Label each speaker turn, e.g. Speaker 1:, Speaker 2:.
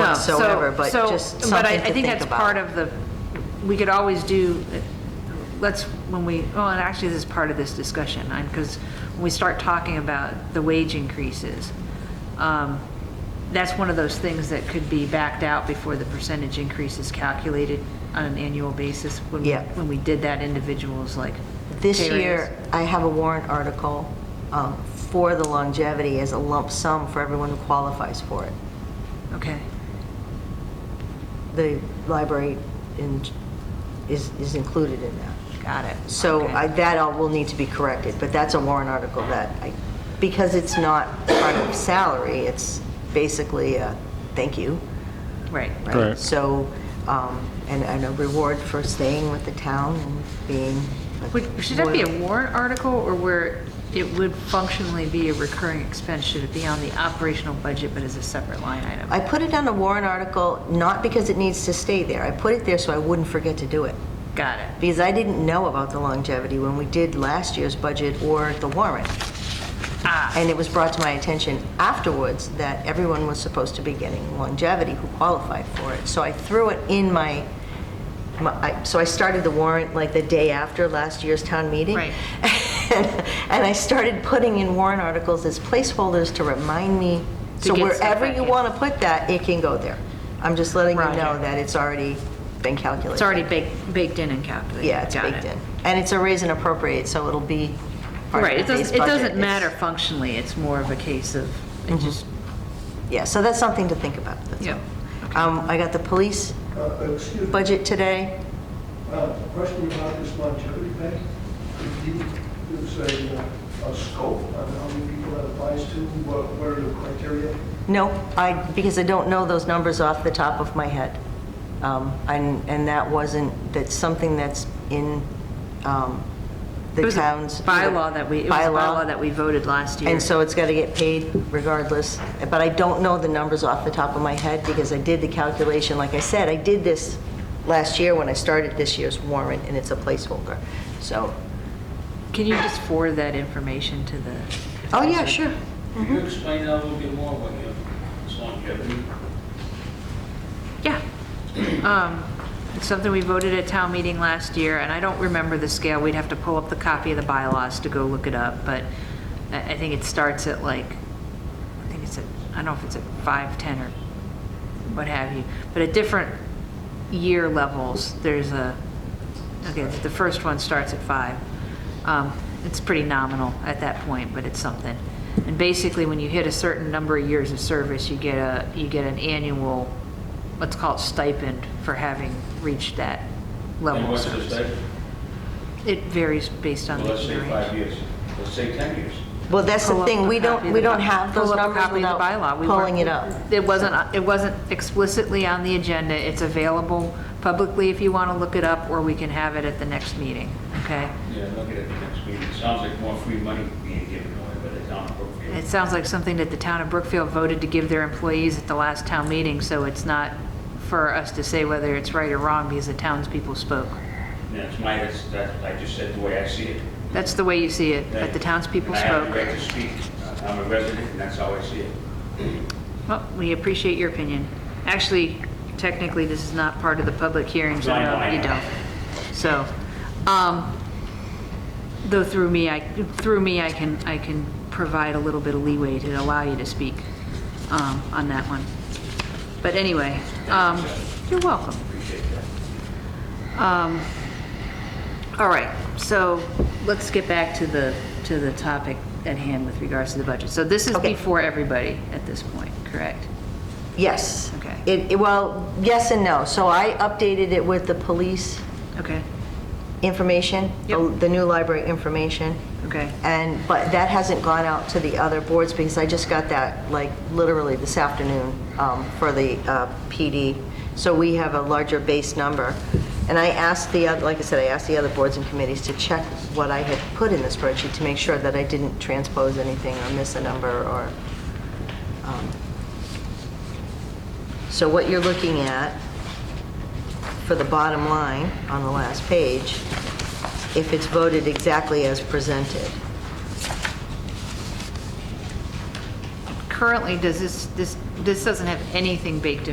Speaker 1: No, so-
Speaker 2: whatsoever, but
Speaker 1: so-
Speaker 2: just
Speaker 1: But I-
Speaker 2: something
Speaker 1: I
Speaker 2: to
Speaker 1: think
Speaker 2: think
Speaker 1: that's part
Speaker 2: about.
Speaker 1: of the, we could always do, let's, when we, oh, and actually this is part of this discussion, because when we start talking about the wage increases, um, that's one of those things that could be backed out before the percentage increase is calculated on an annual basis. When we-
Speaker 2: Yeah.
Speaker 1: When we did that, individuals like.
Speaker 2: This
Speaker 1: pay
Speaker 2: year, I have a warrant article um, for the longevity as a lump sum for everyone who qualifies for it.
Speaker 1: raise. Okay,
Speaker 2: The library in- is is included in that.
Speaker 1: got it.
Speaker 2: So
Speaker 1: Okay.
Speaker 2: I- that all will need to be corrected, but that's a warrant article that, I- because it's not part of salary, it's basically a thank you.
Speaker 1: Right.
Speaker 2: right?
Speaker 3: Correct.
Speaker 2: So, um, and and a reward for staying with the town and being. a
Speaker 1: Would- Should that be
Speaker 2: loyal-
Speaker 1: a warrant article, or where it would functionally be a recurring expense? Should it be on the operational budget, but as a separate line item?
Speaker 2: I put it on a warrant article, not because it needs to stay there. I put it there so I wouldn't forget to do it.
Speaker 1: Got it.
Speaker 2: Because I didn't know about the longevity when we did last year's budget or the warrant.
Speaker 1: Ah,
Speaker 2: And it was brought to my attention afterwards that everyone was supposed to be getting longevity who qualified for it. So I threw it in my, my- I- so I started the warrant like the day after last year's town meeting.
Speaker 1: Right.
Speaker 2: And I started putting in warrant articles as placeholders to remind me,
Speaker 1: To
Speaker 2: so
Speaker 1: get stuff
Speaker 2: wherever
Speaker 1: back
Speaker 2: you
Speaker 1: in.
Speaker 2: want to put that, it can go there. I'm just letting you
Speaker 1: Roger.
Speaker 2: know that it's already been calculated.
Speaker 1: It's already baked, baked in and calculated.
Speaker 2: Yeah, it's
Speaker 1: Got
Speaker 2: baked
Speaker 1: it.
Speaker 2: in. And it's a raise and appropriate, so it'll be part
Speaker 1: Right,
Speaker 2: of
Speaker 1: it
Speaker 2: the base
Speaker 1: doesn't, it
Speaker 2: budget.
Speaker 1: doesn't
Speaker 2: It's- Mm-hmm.
Speaker 1: matter functionally, it's more of a case of, it just,
Speaker 2: Yeah, so that's something to think about. that's
Speaker 1: Yeah.
Speaker 2: all. Um, I got the police
Speaker 4: Uh, Excuse me,
Speaker 2: budget today.
Speaker 4: uh, a question about this longevity pay. If you use a, uh, a scope on how many people that applies to, what what are the criteria?
Speaker 2: No, I, because I don't know those numbers off the top of my head. Um, And, and that wasn't, that's something that's in um,
Speaker 1: it
Speaker 2: the
Speaker 1: was a
Speaker 2: town's.
Speaker 1: bylaw that we, it was a bylaw that we voted last year.
Speaker 2: And so it's got to get paid regardless. But I don't know the numbers off the top of my head because I did the calculation. Like I said, I did this last year when I started this year's warrant, and it's a placeholder. So,
Speaker 1: Can you just forward that information to the?
Speaker 2: oh, yeah, sure.
Speaker 5: Can you explain that a little bit more when you, longevity?
Speaker 1: Yeah. Um, It's something we voted at town meeting last year, and I don't remember the scale. We'd have to pull up the copy of the bylaws to go look it up, but I I think it starts at like, I think it's at, I don't know if it's at 5, 10, or what have you. But at different year levels, there's a, okay, the first one starts at 5. Um, It's pretty nominal at that point, but it's something. And basically, when you hit a certain number of years of service, you get a, you get an annual let's call it stipend for having reached that level. of
Speaker 5: And what's the
Speaker 1: service.
Speaker 5: stipend?
Speaker 1: It varies based on
Speaker 5: Well,
Speaker 1: the
Speaker 5: let's say
Speaker 1: year
Speaker 5: five
Speaker 1: range.
Speaker 5: years, let's say 10 years.
Speaker 2: Well, that's
Speaker 1: Pull
Speaker 2: the
Speaker 1: up
Speaker 2: thing, we
Speaker 1: a copy
Speaker 2: don't,
Speaker 1: of
Speaker 2: we
Speaker 1: the
Speaker 2: don't
Speaker 1: by-
Speaker 2: have those
Speaker 1: pull up a
Speaker 2: numbers
Speaker 1: copy of the bylaw.
Speaker 2: without
Speaker 1: We
Speaker 2: pulling it
Speaker 1: weren't-
Speaker 2: up.
Speaker 1: It wasn't, it wasn't explicitly on the agenda. It's available publicly if you want to look it up, or we can have it at the next meeting, okay?
Speaker 5: Yeah, look at it the next meeting. It sounds like more free money being given away, but it's not
Speaker 1: It
Speaker 5: appropriate.
Speaker 1: sounds like something that the town of Brookfield voted to give their employees at the last town meeting, so it's not for us to say whether it's right or wrong because the townspeople spoke.
Speaker 5: That's my, that's, that- I just said the way I see it.
Speaker 1: That's the way you see it, but the townspeople
Speaker 5: And I have the
Speaker 1: spoke.
Speaker 5: right to speak. I'm a resident, and that's how I see it.
Speaker 1: Well, we appreciate your opinion. Actually, technically, this is not part of the public hearing, so
Speaker 5: No, I know,
Speaker 1: no,
Speaker 5: I
Speaker 1: you
Speaker 5: know.
Speaker 1: don't. So, um, though through me, I, through me, I can, I can provide a little bit of leeway to allow you to speak um, on that one. But anyway, um, you're welcome.
Speaker 5: Appreciate that.
Speaker 1: Um, All right, so let's get back to the, to the topic at hand with regards to the budget. So this is
Speaker 2: Okay.
Speaker 1: before everybody at this point, correct?
Speaker 2: Yes.
Speaker 1: Okay.
Speaker 2: It, it- well, yes and no. So I updated it with the police
Speaker 1: Okay,
Speaker 2: information, the
Speaker 1: Yep.
Speaker 2: the new library information.
Speaker 1: okay.
Speaker 2: And, but that hasn't gone out to the other boards because I just got that, like, literally this afternoon um, for the uh, PD. So we have a larger base number. And I asked the, oth- like I said, I asked the other boards and committees to check what I had put in the spreadsheet to make sure that I didn't transpose anything or miss a number or, um, so what you're looking at for the bottom line on the last page, if it's voted exactly as presented.
Speaker 1: Currently, does this, this, this doesn't have anything baked in